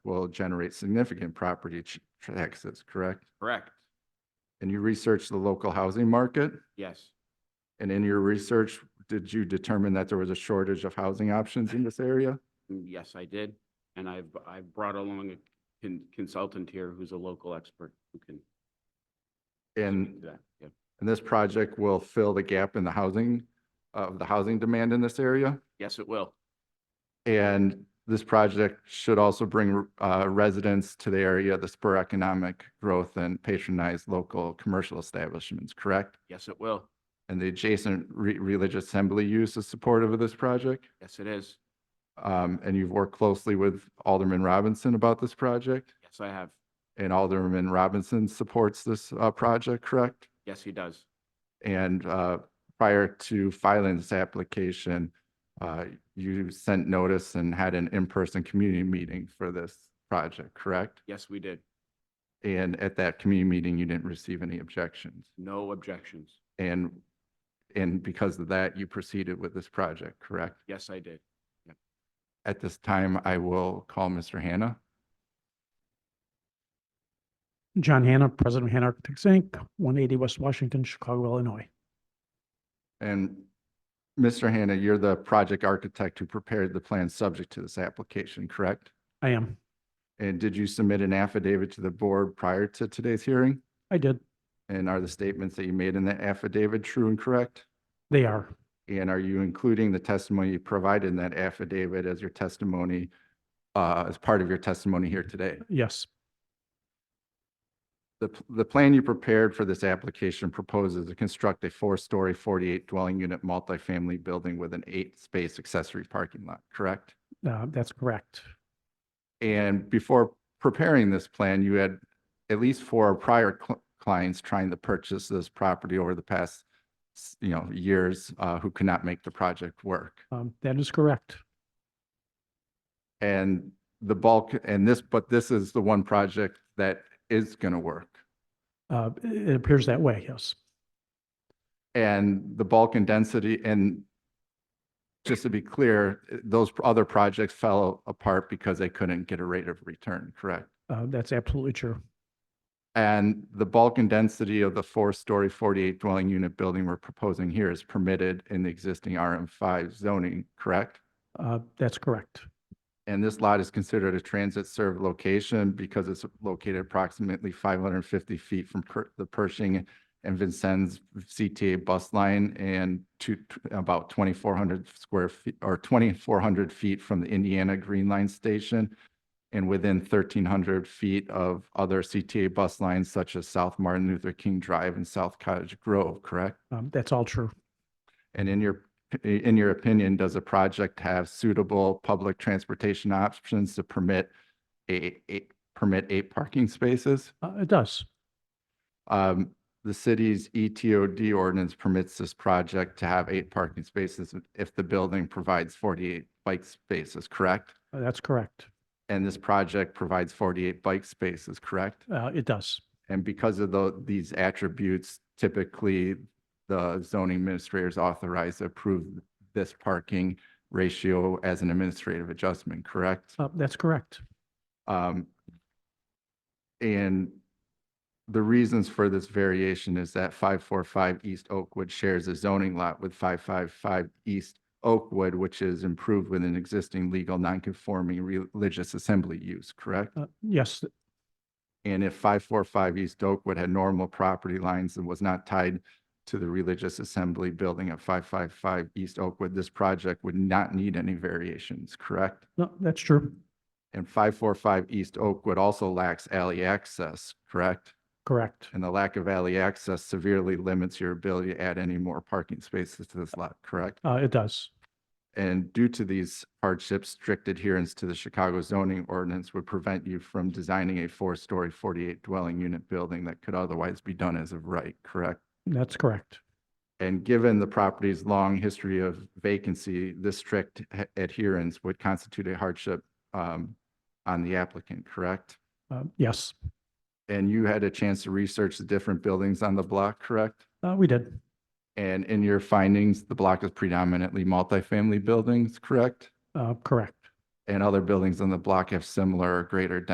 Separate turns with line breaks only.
will generate significant property ch- taxes, correct?
Correct.
And you researched the local housing market?
Yes.
And in your research, did you determine that there was a shortage of housing options in this area?
Mm, Yes, I did. And I've, I've brought along a con- consultant here who's a local expert who can. speak
And,
to that. Yeah.
and this project will fill the gap in the housing, of the housing demand in this area?
Yes, it will.
And this project should also bring uh, residents to the area to spur economic growth and patronize local commercial establishments, correct?
Yes, it will.
And the adjacent re- religious assembly use is supportive of this project?
Yes, it is.
Um, And you've worked closely with Alderman Robinson about this project?
Yes, I have.
And Alderman Robinson supports this uh, project, correct?
Yes, he does.
And uh, prior to filing this application, uh, you sent notice and had an in-person community meeting for this project, correct?
Yes, we did.
And at that community meeting, you didn't receive any objections.
No objections.
And, and because of that, you proceeded with this project, correct?
Yes, I did.
At this time, I will call Mr. Hannah.
John Hanna, President of Hanna Architects, Inc., 180 West Washington, Chicago, Illinois.
And Mr. Hannah, you're the project architect who prepared the plan subject to this application, correct?
I am.
And did you submit an affidavit to the board prior to today's hearing?
I did.
And are the statements that you made in that affidavit true and correct?
They are.
And are you including the testimony you provided in that affidavit as your testimony, uh, as part of your testimony here today?
Yes.
The, p- the plan you prepared for this application proposes to construct a four-story, 48 dwelling unit multifamily building with an eight-space accessory parking lot, correct?
Uh, That's correct.
And before preparing this plan, you had at least four prior cl- clients trying to purchase this property over the past, s- you know, years, uh, who could not make the project work.
Um, That is correct.
And the bulk, and this, but this is the one project that is going to work.
Uh, It it appears that way, yes.
And the bulk and density, and just to be clear, eh, those other projects fell apart because they couldn't get a rate of return, correct?
Uh, That's absolutely true.
And the bulk and density of the four-story, 48 dwelling unit building we're proposing here is permitted in the existing RM5 zoning, correct?
Uh, That's correct.
And this lot is considered a transit served location because it's located approximately 550 feet from Per- the Pershing and Vincennes CTA bus line and to about 2,400 square feet or 2,400 feet from the Indiana Green Line Station and within 1,300 feet of other CTA bus lines such as South Martin Luther King Drive and South Cottage Grove, correct?
Um, That's all true.
And in your, in your opinion, does the project have suitable public transportation options to permit eight, eight, permit eight parking spaces?
Uh, It does.
Um, the city's E ETOD ordinance permits this project to have eight parking spaces if the building provides forty-eight bike spaces, correct?
Uh, That's correct.
And this project provides forty-eight bike spaces, correct?
Uh, It does.
And because of tho- these attributes, typically the zoning administrator is authorized to approve this parking ratio as an administrative adjustment, correct?
Uh, That's correct.
Um, and the reasons for this variation is that five four five East Oakwood shares a zoning lot with five five five East Oakwood, which is improved with an existing legal nonconforming religious assembly use, correct?
Uh, Yes,
And if five four five East Oakwood had normal property lines and was not tied to the religious assembly building at five five five East Oakwood, this project would not need any variations, correct?
no, that's true.
And five four five East Oakwood also lacks alley access, correct?
Correct.
And the lack of alley access severely limits your ability to add any more parking spaces to this lot, correct?
Uh, It does.
And due to these hardships, strict adherence to the Chicago zoning ordinance would prevent you from designing a four-story, 48 dwelling unit building that could otherwise be done as of right, correct?
That's correct.
And given the property's long history of vacancy, this strict h- adherence would constitute a hardship um, on the applicant, correct?
Uh, Yes,
And you had a chance to research the different buildings on the block, correct?
Uh, we did.
And in your findings, the block is predominantly multifamily buildings, correct?
Uh, Correct.
and other buildings on the block have similar or greater density